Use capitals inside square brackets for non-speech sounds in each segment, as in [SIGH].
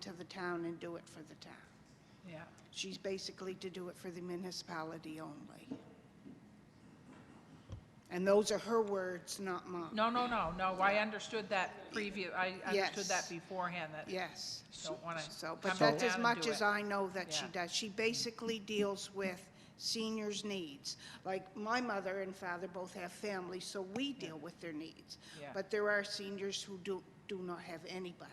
to the town and do it for the town. Yeah. She's basically to do it for the municipality only. And those are her words, not mine. No, no, no, no, I understood that preview, I understood Yes. that beforehand, that, Yes. Don't wanna So, come but that's down as and much do as it. I know that she Yeah. does. She basically deals with seniors' needs. Like, my mother and father both have families, so we deal with their needs. Yeah. But there are seniors who do, do not have anybody.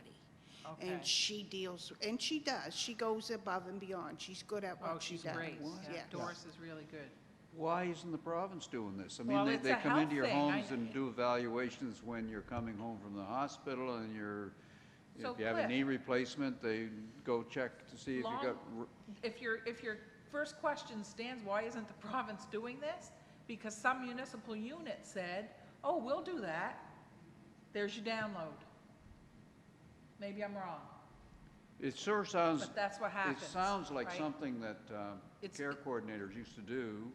Okay. And she deals, and she does. She goes above and beyond. She's good at oh, what she she's does. great, yeah, Yeah. Doris is really good. Why isn't the province doing this? I Well, mean, they, it's they a come into your health thing. I- homes and do evaluations when you're coming home from the hospital and you're, So, if you have a Cliff- knee replacement, they go check to see if you Long- got, r- If your, if your first question stands, why isn't the [LAUGHS] province doing this? Because some municipal unit said, oh, we'll do that, there's your download. Maybe I'm wrong, it sure sounds, but that's what it happens. sounds like right? something that, uh, It's- care coordinators used to do,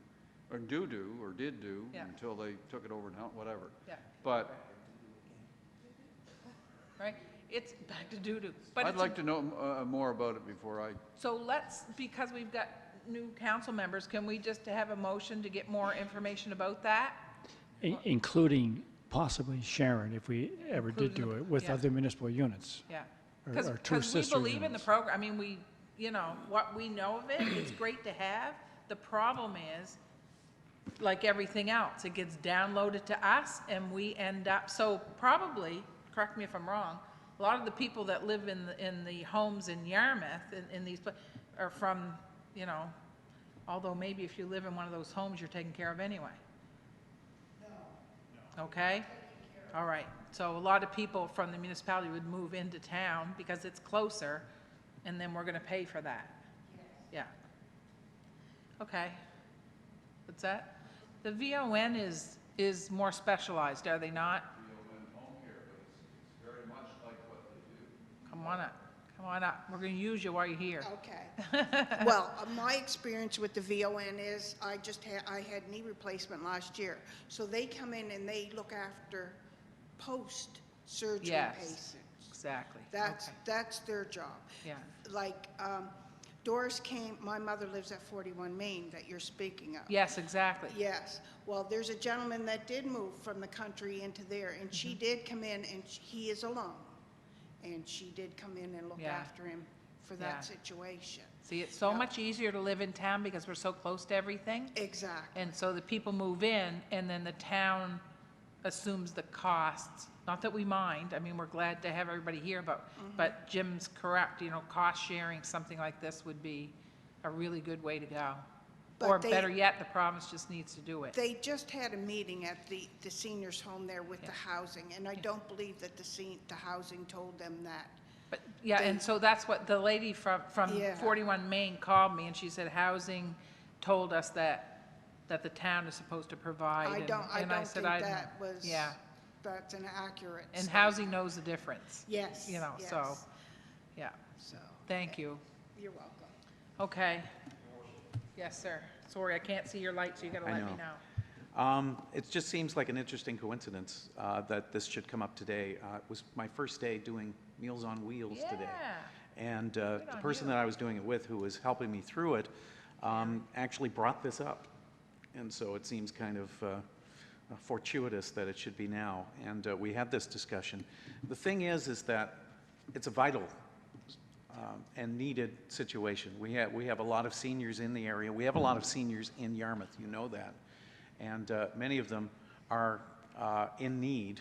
or do do, or did do, Yeah. until they took it over and helped, whatever. Yeah, But right, it's back to doo-doo, but I'd it's a like to know, uh, more about it before I So let's, because we've got new council members, can we just have a motion to get more information about that? In- Including possibly Sharon, if we ever did Including do the- it, with yeah. other municipal units. Yeah. Or- Because, or two we sister believe in the units. program, I mean, we, you know, what we know of it, it's great to have. The problem is, like everything else, it gets downloaded to us and we end up, so probably, correct me if I'm wrong, a lot of the people that live in, the- in the homes in Yarmouth, in, in these, pla- are from, you know, although maybe if you live in one of those homes, you're taken care of anyway. Okay? All right, so a lot of people from the municipality would move into town because it's closer, and then we're gonna pay for that. Yeah. Okay. What's that? The VON is, is more specialized, are they not? Come on up, come on up, we're gonna use you while you're here. Oh, [LAUGHS] Okay. Well, uh, my experience with the VON is, I just had, I had knee replacement last year. So they come in and they look after post-surgery Yes. patients. Exactly, That's, okay. that's their job. Yeah. Like, um, Doris came, my mother lives at 41 Main that you're speaking of. Yes, exactly. Yes, well, there's a gentleman that did move from the country into there, and Mm-hmm. she did come in, and sh- he is alone. And she did come in and look Yeah. after him for Yeah. that situation. See, it's so Yeah. much easier to live in town because we're so close to everything. Exactly, And so the people move in, and then the town assumes the costs. Not that we mind, I mean, we're glad to have everybody here, but, Mm-hmm. but Jim's correct, you know, cost sharing, something like this would be a really good way to go. But Or they- better yet, the province just needs to do it. they just had a meeting at the, the seniors' home there with the housing, and I don't believe that the sen, the housing told them that. But, yeah, and so that's what the lady from, from Yeah. 41 Main called me, and she said housing told us that, that the town is supposed to provide. I and- don't, I and I don't said, think don't- that was, Yeah, that's an accurate. and statement. housing knows the difference. Yes, You know, so, yes. yeah, So, thank you. you're welcome. Okay. Yes, sir. Sorry, I can't see your light, so you gotta I let me know. know. Um, It just seems like an interesting coincidence uh, that this should come up today. Uh, It was my first day doing Meals on Wheels today. Yeah. And uh, Good the on person you. that I was doing it with, who was helping me through it, um, actually brought this up. And so it seems kind of uh, fortuitous that it should be now. And uh, we had this discussion. The thing is, is that it's a vital um, and needed situation. We have, we have a lot of seniors in the area. We have a lot of seniors in Yarmouth, you know that. And uh, many of them are uh, in need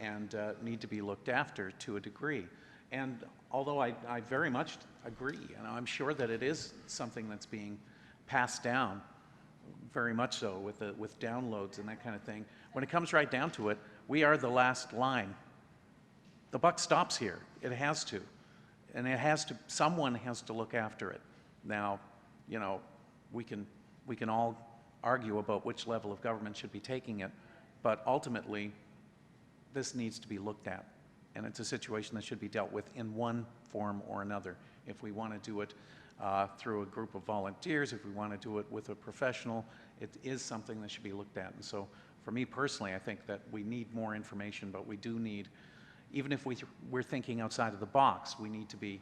and uh, need to be looked after to a degree. And although I, I very much agree, and I'm sure that it is something that's being passed down, very much so with, the, with downloads and that kind of thing, when it comes right down to it, we are the last line the buck stops here. It has to. And it has to, someone has to look after it. Now, you know, we can, we can all argue about which level of government should be taking it, but ultimately, this needs to be looked at. And it's a situation that should be dealt with in one form or another. If we want to do it uh, through a group of volunteers, if we want to do it with a professional, it is something that should be looked at. And so, for me personally, I think that we need more information, but we do need, even if we, we're thinking outside of the box, we need to be